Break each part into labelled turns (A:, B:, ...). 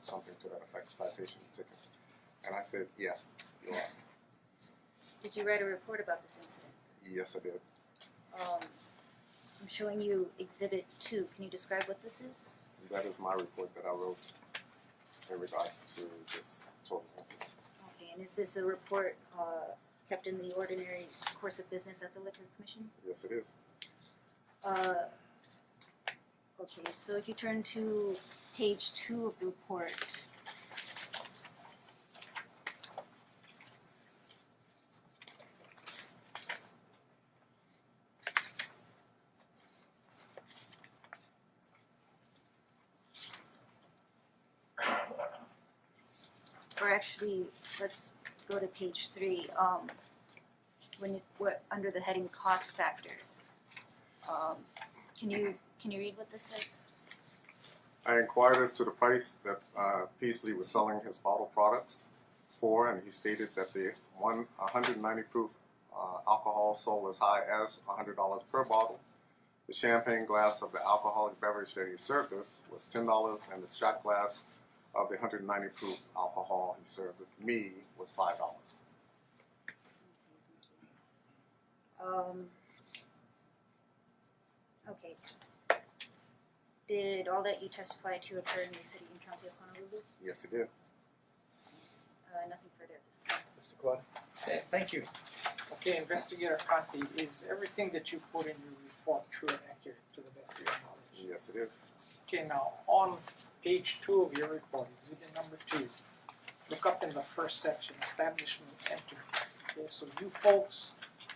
A: something to that effect, citation ticket. And I said, yes, you are.
B: Did you write a report about this incident?
A: Yes, I did.
B: Um, I'm showing you exhibit two, can you describe what this is?
A: That is my report that I wrote in regards to this total incident.
B: Okay, and is this a report, uh, kept in the ordinary course of business at the liquor commission?
A: Yes, it is.
B: Uh, okay, so if you turn to page two of the report. Or actually, let's go to page three, um, when you, what, under the heading cost factor. Um, can you, can you read what this says?
A: I inquired as to the price that uh, Peasley was selling his bottle products for, and he stated that the one 190 proof uh, alcohol sold as high as $100 per bottle. The champagne glass of the alcoholic beverage that he served us was $10, and the shot glass of the 190 proof alcohol he served me was $5.
B: Um, okay. Did all that you testified to occur in the city and county of Honolulu?
A: Yes, he did.
B: Uh, nothing further at this point.
C: Mr. Claude.
D: Okay, thank you. Okay, investigator Conti, is everything that you put in your report true and accurate to the best of your knowledge?
A: Yes, it is.
D: Okay, now, on page two of your report, exhibit number two, look up in the first section, establishment entered. Okay, so you folks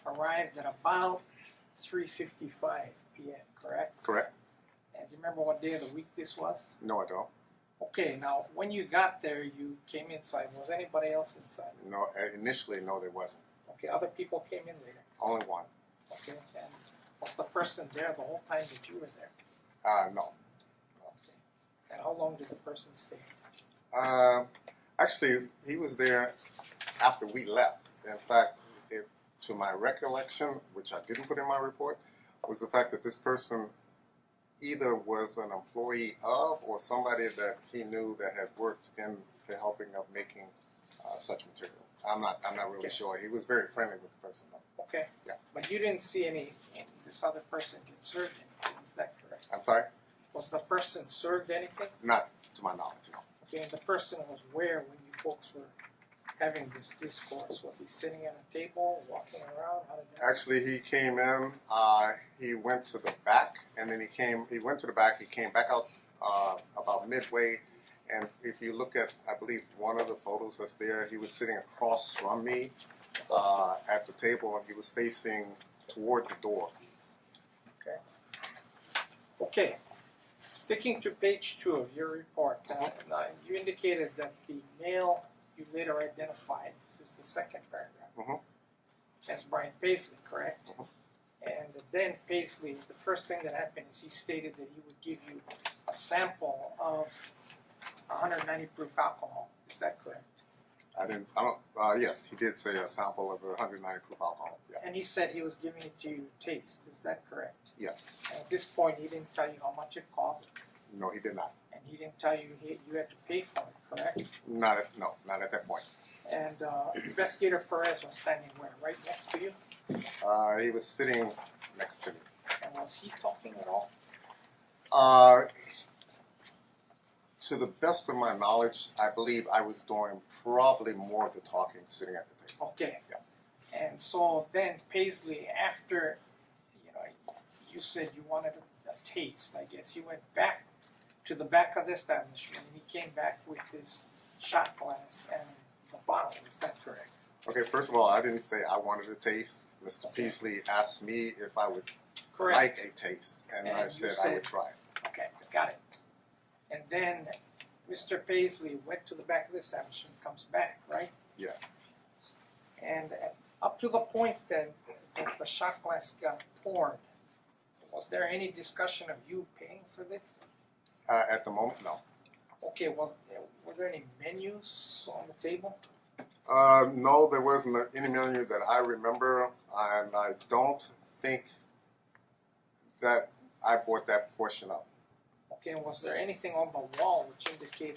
D: arrived at about three fifty-five P M, correct?
A: Correct?
D: And do you remember what day of the week this was?
A: No, I don't.
D: Okay, now, when you got there, you came inside, was anybody else inside?
A: No, uh, initially, no, there wasn't.
D: Okay, other people came in later.
A: Only one.
D: Okay, and was the person there the whole time that you were there?
A: Uh, no.
D: Okay. And how long did the person stay?
A: Um, actually, he was there after we left. In fact, it, to my recollection, which I didn't put in my report, was the fact that this person either was an employee of or somebody that he knew that had worked in the helping of making uh, such material. I'm not. I'm not really
D: Okay.
A: sure. He was very friendly with the person. Though.
D: Okay.
A: Yeah.
D: But you didn't see any, any this other person get served anything, is that correct?
A: I'm sorry,
D: Was the person served anything?
A: not to my knowledge. No.
D: Okay, and the person was where when you folks were having this discourse? Was he sitting at a table, walking around? How did that
A: Actually, he came in. Uh, he went to the back, and then he came. He went to the back. He came back out uh, about midway. And if you look at, I believe one of the photos that's there, he was sitting across from me uh, at the table, and he was facing toward the door.
D: Okay, sticking to page two of your report, uh, now, you indicated that the male you later identified, this is the second paragraph.
A: Mhm.
D: As Brian Paisley, correct?
A: Mhm.
D: And then Paisley, the first thing that happened is he stated that he would give you a sample of hundred ninety proof alcohol, is that correct?
A: I didn't. I don't. Uh, yes, he did say a sample of 190 proof alcohol. Yeah.
D: And he said he was giving it to you to taste, is that correct?
A: Yes.
D: And at this point, he didn't tell you how much it cost,
A: No, he did not.
D: and he didn't tell you he, you had to pay for it, correct?
A: Not at. No, not at that point.
D: And uh, Investigator Perez was standing where? Right next to you?
A: Uh, he was sitting next to me.
D: And was he talking at all?
A: Uh, to the best of my knowledge, I believe I was doing probably more of the talking sitting at the table.
D: Okay. And so then Paisley, after, you know, you said you wanted a, a taste, I guess, he went back to the back of the establishment and he came back with this shot glass and the bottle. Is that correct?
A: Okay, first of all, I didn't say I wanted a taste. Mr. Peasley asked me if I would like a taste, and,
D: And
A: I
D: you
A: said, I
D: said-
A: would try it.
D: Okay, got it. And then Mr. Paisley went to the back of the establishment, comes back, right?
A: Yes.
D: And at- up to the point then that the shot glass got poured, was there any discussion of you paying for this?
A: Uh, at the moment, no.
D: Okay, was were there any menus on the table?
A: Uh, no, there wasn't any menu that I remember, and I don't think that I bought that portion up.
D: Okay, was there anything on the wall which indicated